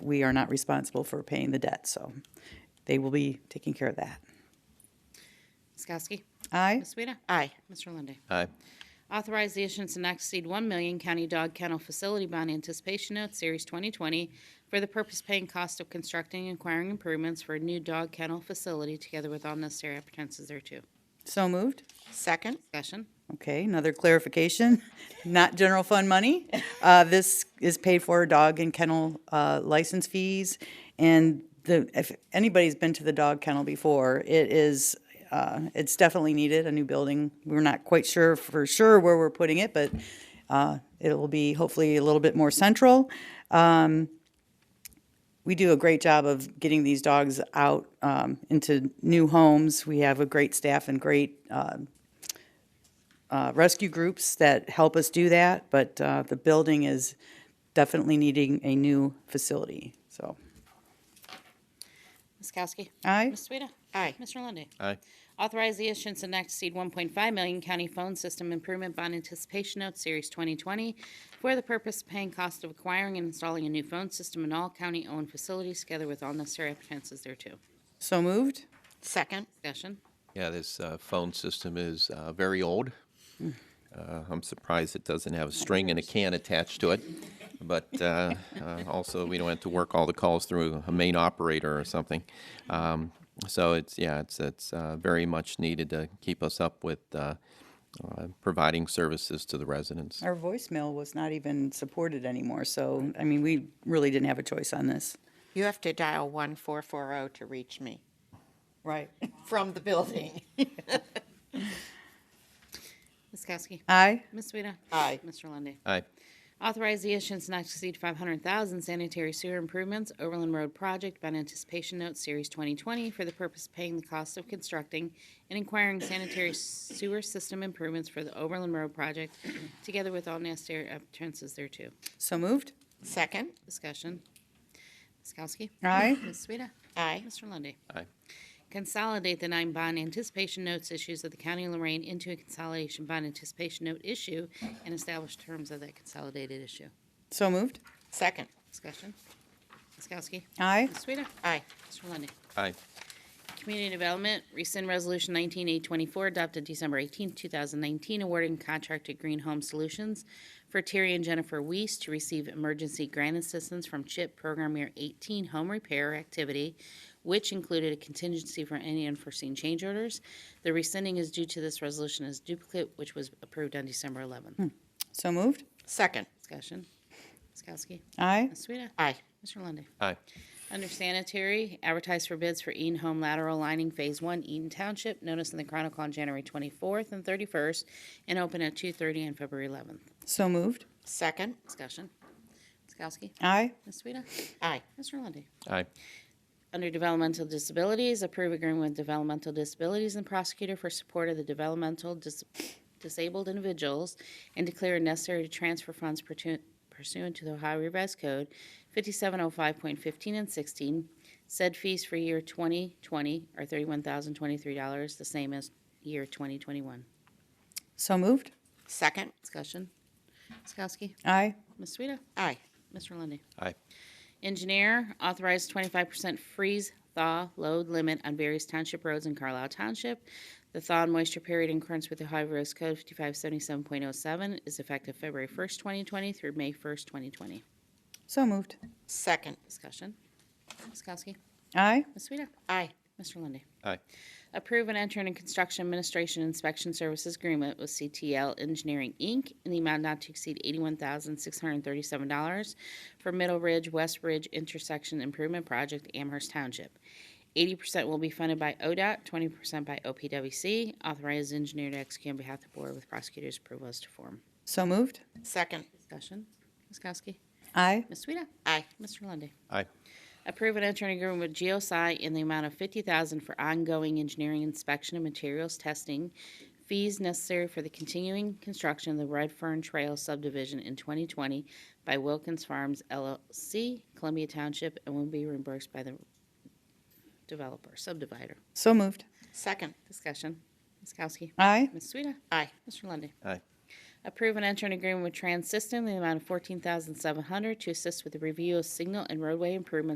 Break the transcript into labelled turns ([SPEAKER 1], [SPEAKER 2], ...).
[SPEAKER 1] we are not responsible for paying the debt, so they will be taking care of that.
[SPEAKER 2] Ms. Kowski?
[SPEAKER 1] Aye?
[SPEAKER 2] Ms. Sueda?
[SPEAKER 3] Aye.
[SPEAKER 2] Mr. Lundy.
[SPEAKER 4] Aye.
[SPEAKER 2] Authorize the issuance of not to exceed 1 million county dog kennel facility bond anticipation note, Series 2020, for the purpose paying cost of constructing and acquiring improvements for a new dog kennel facility, together with all necessary appetances thereto.
[SPEAKER 1] So moved.
[SPEAKER 3] Second.
[SPEAKER 2] Discussion?
[SPEAKER 1] Okay, another clarification, not general fund money. Uh, This is paid for dog and kennel uh, license fees. And the, if anybody's been to the dog kennel before, it is, uh, it's definitely needed, a new building. We're not quite sure for sure where we're putting it, but uh, it will be hopefully a little bit more central Um, we do a great job of getting these dogs out um, into new homes. We have a great staff and great um, uh, rescue groups that help us do that, but uh, the building is definitely needing a new facility. So,
[SPEAKER 2] Ms. Kowski?
[SPEAKER 1] aye,
[SPEAKER 2] Ms. Sueda?
[SPEAKER 3] Aye.
[SPEAKER 2] Mr. Lundy.
[SPEAKER 4] Aye.
[SPEAKER 2] Authorize the issuance of not to exceed 1.5 million county phone system improvement bond anticipation note, Series 2020, for the purpose of paying cost of acquiring and installing a new phone system in all county-owned facilities, together with all necessary appetances thereto.
[SPEAKER 1] so moved.
[SPEAKER 3] Second.
[SPEAKER 2] Discussion?
[SPEAKER 4] Yeah, this uh, phone system is uh, very old. Uh, I'm surprised it doesn't have a string and a can attached to it. But uh, uh, also, we don't have to work all the calls through a main operator or something. Um, so it's yeah, it's it's uh, very much needed to keep us up with uh, uh, providing services to the residents.
[SPEAKER 1] Our voicemail was not even supported anymore, so, I mean, we really didn't have a choice on this.
[SPEAKER 3] You have to dial 1440 to reach me
[SPEAKER 1] Right.
[SPEAKER 3] from the building.
[SPEAKER 2] Ms. Kowski?
[SPEAKER 1] Aye,
[SPEAKER 2] Ms. Sueda?
[SPEAKER 3] Aye.
[SPEAKER 2] Mr. Lundy.
[SPEAKER 4] Aye.
[SPEAKER 2] Authorize the issuance not to exceed 500,000 sanitary sewer improvements, Overland Road Project, bond anticipation note, Series 2020, for the purpose of paying the cost of constructing and inquiring sanitary sewer system improvements for the Overland Road Project, together with all necessary appetances thereto.
[SPEAKER 1] so moved.
[SPEAKER 3] Second.
[SPEAKER 2] Discussion. Ms. Kowski?
[SPEAKER 1] Aye,
[SPEAKER 2] Ms. Sueda?
[SPEAKER 3] Aye.
[SPEAKER 2] Mr. Lundy.
[SPEAKER 4] Aye.
[SPEAKER 2] Consolidate the nine bond anticipation notes issues of the County of Lorraine into a consolidation bond anticipation note issue and establish terms of that consolidated issue.
[SPEAKER 1] so moved.
[SPEAKER 3] Second.
[SPEAKER 2] Discussion. Ms. Kowski.
[SPEAKER 1] Aye,
[SPEAKER 2] Ms. Sueda.
[SPEAKER 3] Aye.
[SPEAKER 2] Mr. Lundey.
[SPEAKER 4] Aye.
[SPEAKER 2] Community Development, rescind Resolution 19824 adopted December 18, 2019, awarding contract to Green Home Solutions for Terry and Jennifer Weiss to receive emergency grant assistance from CHIP Program Year 18 Home Repair Activity, which included a contingency for any unforeseen change orders. The rescinding is due to this resolution as duplicate, which was approved on December 11.
[SPEAKER 1] so moved.
[SPEAKER 3] Second.
[SPEAKER 2] Discussion. Ms. Kowski.
[SPEAKER 1] Aye,
[SPEAKER 2] Ms. Sueda.
[SPEAKER 3] Aye.
[SPEAKER 2] Mr. Lundey.
[SPEAKER 4] Aye.
[SPEAKER 2] Under sanitary, advertise for bids for Eaton Home lateral lining Phase One, Eaton Township. Notice in the Chronicle on January twenty-fourth and thirty-first, and open at two-thirty on February eleventh.
[SPEAKER 1] so moved.
[SPEAKER 3] Second.
[SPEAKER 2] Discussion. Ms. Kowski.
[SPEAKER 1] Aye,
[SPEAKER 2] Ms. Sueda.
[SPEAKER 3] Aye.
[SPEAKER 2] Mr. Lundy.
[SPEAKER 4] Aye.
[SPEAKER 2] Under developmental disabilities, approve agreement with developmental disabilities and prosecutor for support of the developmental dis- disabled individuals and declare it necessary to transfer funds purtu- pursuant to the Ohio Revised Code 5705.15 and 16. Said fees for year 2020 are $31,023, the same as year 2021.
[SPEAKER 1] so moved.
[SPEAKER 3] Second.
[SPEAKER 2] Discussion. Ms. Kowski.
[SPEAKER 1] Aye,
[SPEAKER 2] Ms. Sueda.
[SPEAKER 3] Aye.
[SPEAKER 2] Mr. Lundy.
[SPEAKER 4] Aye.
[SPEAKER 2] Engineer, authorized twenty-five percent freeze thaw load limit on various township roads in Carlisle Township. The thaw and moisture period in accordance with the Ohio Rose Code fifty-five seventy-seven point oh seven is effective February first, twenty twenty through May first, twenty twenty.
[SPEAKER 1] so moved.
[SPEAKER 3] Second.
[SPEAKER 2] Discussion. Ms. Kowski.
[SPEAKER 1] Aye,
[SPEAKER 2] Ms. Sueda.
[SPEAKER 3] Aye.
[SPEAKER 2] Mr. Lundy.
[SPEAKER 4] Aye.
[SPEAKER 2] Approve and enter in construction administration inspection services agreement with CTL Engineering, Inc. in the amount not to exceed eighty-one thousand, six hundred and thirty-seven dollars for Middle Ridge, West Ridge Intersection Improvement Project, Amherst Township. Eighty percent will be funded by ODOT, twenty percent by OPWC. Authorized engineer to execute on behalf of the board with prosecutor's approval as to form.
[SPEAKER 1] so moved.
[SPEAKER 3] Second.
[SPEAKER 2] Discussion. Ms. Kowski.
[SPEAKER 1] Aye,
[SPEAKER 2] Ms. Sueda.
[SPEAKER 3] Aye.
[SPEAKER 2] Mr. Lundy.
[SPEAKER 4] Aye.
[SPEAKER 2] Approve an entering agreement with GeoSci in the amount of fifty thousand for ongoing engineering inspection and materials testing. Fees necessary for the continuing construction of the Red Fern Trail subdivision in twenty twenty by Wilkins Farms LLC, Columbia Township, and will be reimbursed by the developer, subdivider.
[SPEAKER 1] so moved.
[SPEAKER 3] Second.
[SPEAKER 2] Discussion. Ms. Kowski.
[SPEAKER 1] Aye,
[SPEAKER 2] Ms. Sueda.
[SPEAKER 3] Aye.
[SPEAKER 2] Mr. Lundy.
[SPEAKER 4] Aye.
[SPEAKER 2] Approve and enter an agreement with Trans System in the amount of fourteen thousand seven hundred to assist with the review of signal and roadway improvements